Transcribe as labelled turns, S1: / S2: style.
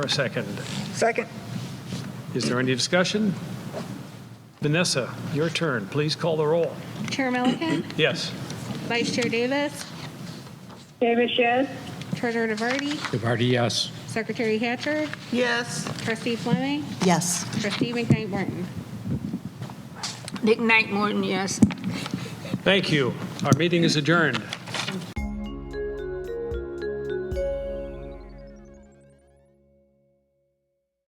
S1: For a second.
S2: Second.
S1: Is there any discussion? Vanessa, your turn. Please call the roll.
S3: Chair Milliken,
S1: Yes.
S3: Vice Chair Davis,
S4: Davis, yes.
S3: Treasurer DeVarty,
S5: DeVarty, yes.
S3: Secretary Hatcher,
S2: Yes.
S3: Trustee Fleming,
S6: Yes.
S3: Trustee McKnight Morton.
S7: Nick Knight Morton, yes.
S1: Thank you. Our meeting is adjourned.